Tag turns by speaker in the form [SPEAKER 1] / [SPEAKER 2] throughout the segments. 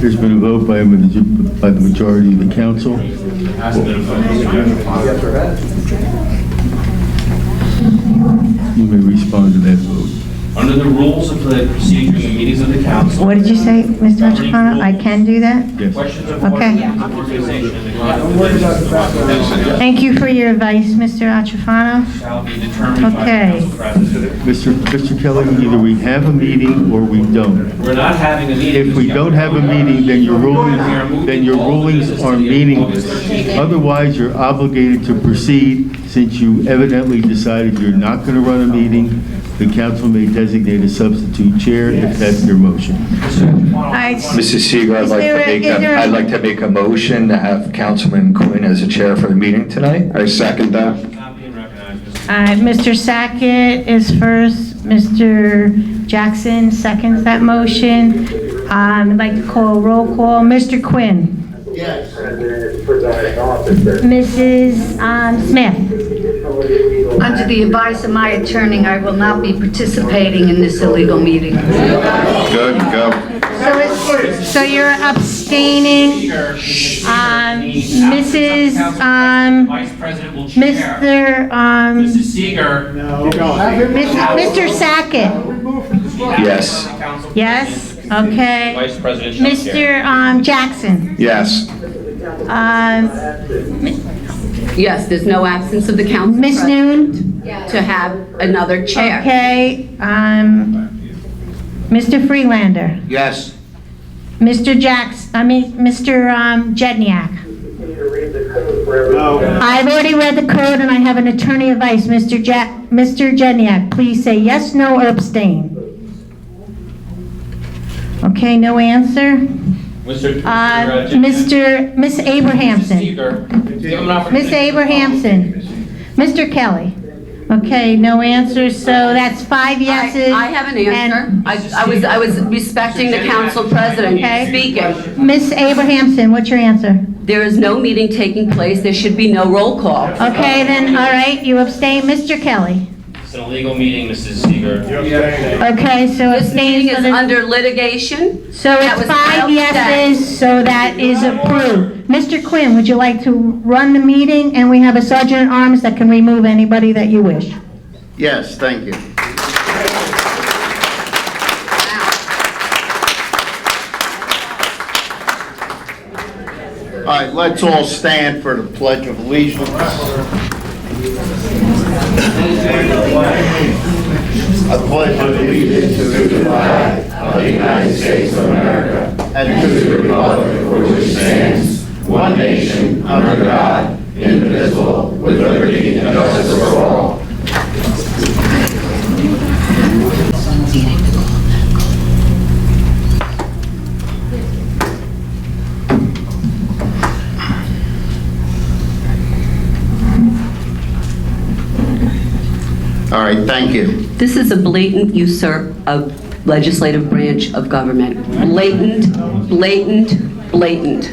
[SPEAKER 1] There's been a vote by, a maj- by the majority of the council. You may respond to that vote.
[SPEAKER 2] Under the rules of the procedures and meetings of the council.
[SPEAKER 3] What did you say, Mr. Metropolitan? I can do that?
[SPEAKER 1] Yes.
[SPEAKER 2] Questions of order,
[SPEAKER 3] Okay.
[SPEAKER 2] the organization, and the conduct
[SPEAKER 3] Thank you for your advice, Mr. Achafano.
[SPEAKER 2] shall be determined by the
[SPEAKER 3] Okay.
[SPEAKER 2] council president.
[SPEAKER 1] Mr. Mr. Kelly, either we have a meeting or we don't.
[SPEAKER 2] We're not having a meeting.
[SPEAKER 1] If we don't have a meeting, then your ruling, then your rulings are meaningless. Otherwise, you're obligated to proceed since you evidently decided you're not going to run a meeting. The council may designate a substitute chair if that's your motion.
[SPEAKER 3] All right,
[SPEAKER 4] Mrs. Seeger, I'd
[SPEAKER 3] Is
[SPEAKER 4] like
[SPEAKER 3] there
[SPEAKER 4] to
[SPEAKER 3] a-
[SPEAKER 4] make,
[SPEAKER 3] is
[SPEAKER 4] a-
[SPEAKER 3] there a-
[SPEAKER 4] I'd like to make a motion to have Councilman Quinn as the chair for the meeting tonight. I second that.
[SPEAKER 2] Not being recognized, Mr.
[SPEAKER 3] All right, Mr. uh, Sackett is first, Mr. Jackson seconds that motion. Um, I'd like to call roll call, Mr. Quinn,
[SPEAKER 5] presiding officer.
[SPEAKER 3] Mrs. um, Smith,
[SPEAKER 6] Under the advice of my attorney, I will not be participating in this illegal meeting.
[SPEAKER 4] Good, go.
[SPEAKER 3] so it's, so you're abstaining,
[SPEAKER 2] Speaker, Mrs. Seeger, the
[SPEAKER 3] Um, Mrs.,
[SPEAKER 2] council
[SPEAKER 3] um,
[SPEAKER 2] president, Vice President will chair.
[SPEAKER 3] Mr.,
[SPEAKER 2] Mrs.
[SPEAKER 3] um,
[SPEAKER 2] Seeger.
[SPEAKER 3] Mis- Mr. Sackett,
[SPEAKER 4] Yes.
[SPEAKER 2] the council
[SPEAKER 3] yes,
[SPEAKER 2] president,
[SPEAKER 3] okay.
[SPEAKER 2] Vice President shall chair.
[SPEAKER 3] Mr. um, Jackson,
[SPEAKER 4] Yes.
[SPEAKER 3] um,
[SPEAKER 7] Yes, there's no absence of the council
[SPEAKER 3] Ms.
[SPEAKER 7] president
[SPEAKER 3] Noon,
[SPEAKER 7] to have another chair.
[SPEAKER 3] okay, um, Mr. Freelander,
[SPEAKER 4] Yes.
[SPEAKER 3] Mr. Jacks, I mean, Mr. um, Jedniak. I've already read the code and I have an attorney advice, Mr. Jack, Mr. Jedniak, please say yes, no, or abstain. Okay, no answer.
[SPEAKER 2] Mr.
[SPEAKER 3] Uh,
[SPEAKER 2] Mr.
[SPEAKER 3] Mr., Miss
[SPEAKER 2] Mrs.
[SPEAKER 3] Abrahamson.
[SPEAKER 2] Seeger, give him an opportunity.
[SPEAKER 3] Miss Abrahamson. Mr. Kelly. Okay, no answer, so that's five yeses.
[SPEAKER 7] I I have an answer.
[SPEAKER 3] and-
[SPEAKER 7] I I was, I was respecting the council president
[SPEAKER 3] Okay.
[SPEAKER 7] speaking.
[SPEAKER 3] Miss Abrahamson, what's your answer?
[SPEAKER 7] There is no meeting taking place, there should be no roll call.
[SPEAKER 3] Okay, then, all right, you abstain, Mr. Kelly.
[SPEAKER 2] It's an illegal meeting, Mrs. Seeger.
[SPEAKER 3] Okay, so
[SPEAKER 7] This meeting
[SPEAKER 3] abstain, so
[SPEAKER 7] is
[SPEAKER 3] the-
[SPEAKER 7] under litigation.
[SPEAKER 3] so
[SPEAKER 7] That
[SPEAKER 3] it's
[SPEAKER 7] was
[SPEAKER 3] five
[SPEAKER 7] well said.
[SPEAKER 3] yeses, so that is approved. Mr. Quinn, would you like to run the meeting? And we have a sergeant at arms that can remove anybody that you wish.
[SPEAKER 8] Yes, thank you. All right, let's all stand for the Pledge of Allegiance. I pledge allegiance to the flag of the United States of America and to the republic for which it stands, one nation, under God, indivisible, with liberty and justice for all. All right, thank you.
[SPEAKER 7] This is a blatant usurp of legislative branch of government. Blatant, blatant, blatant.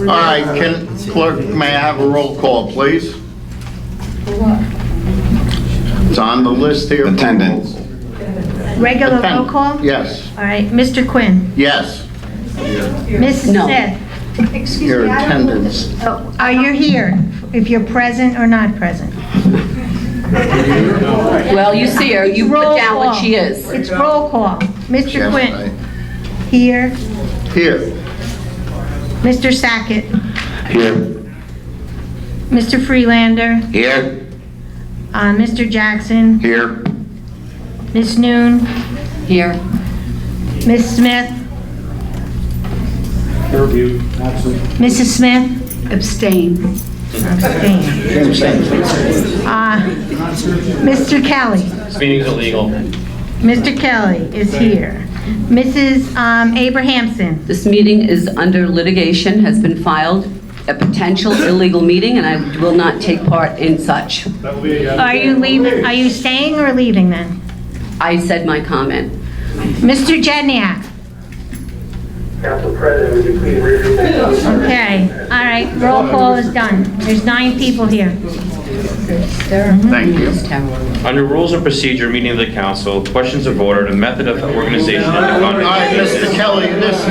[SPEAKER 8] All right, can, clerk, may I have a roll call, please? It's on the list here.
[SPEAKER 4] Attendance.
[SPEAKER 3] Regular roll
[SPEAKER 8] Attend-
[SPEAKER 3] call?
[SPEAKER 8] Yes,
[SPEAKER 3] All right, Mr. Quinn.
[SPEAKER 8] yes,
[SPEAKER 3] Miss
[SPEAKER 7] No.
[SPEAKER 3] Smith.
[SPEAKER 8] your attendance.
[SPEAKER 3] Oh, Are you here, if you're present or not present?
[SPEAKER 7] Well, you see her, you put
[SPEAKER 3] Roll
[SPEAKER 7] down what she
[SPEAKER 3] call.
[SPEAKER 7] is.
[SPEAKER 3] It's roll call. Mr.
[SPEAKER 8] Yes,
[SPEAKER 3] Quinn, here.
[SPEAKER 8] I- Here,
[SPEAKER 3] Mr. Sackett,
[SPEAKER 4] Here.
[SPEAKER 3] Mr. Freelander,
[SPEAKER 4] Here.
[SPEAKER 3] uh, Mr. Jackson,
[SPEAKER 4] Here.
[SPEAKER 3] Ms. Noon,
[SPEAKER 7] Here.
[SPEAKER 3] Ms. Smith. Mrs. Smith.
[SPEAKER 7] Abstain.
[SPEAKER 3] abstained. Uh, Mr. Kelly,
[SPEAKER 2] This meeting's illegal.
[SPEAKER 3] Mr. Kelly is here. Mrs. um, Abrahamson,
[SPEAKER 7] This meeting is under litigation, has been filed, a potential illegal meeting, and I will not take part in such.
[SPEAKER 3] are you leaving, are you staying or leaving then?
[SPEAKER 7] I said my comment.
[SPEAKER 3] Mr. Jedniak.
[SPEAKER 5] Council President, would you please read your
[SPEAKER 3] Okay, all right, roll call is done. There's nine people here.
[SPEAKER 8] thank you.
[SPEAKER 2] Under rules of procedure, meeting of the council, questions of order, the method of organization and the
[SPEAKER 8] All
[SPEAKER 2] conduct of
[SPEAKER 8] right,
[SPEAKER 2] business.
[SPEAKER 8] Mr. Kelly, this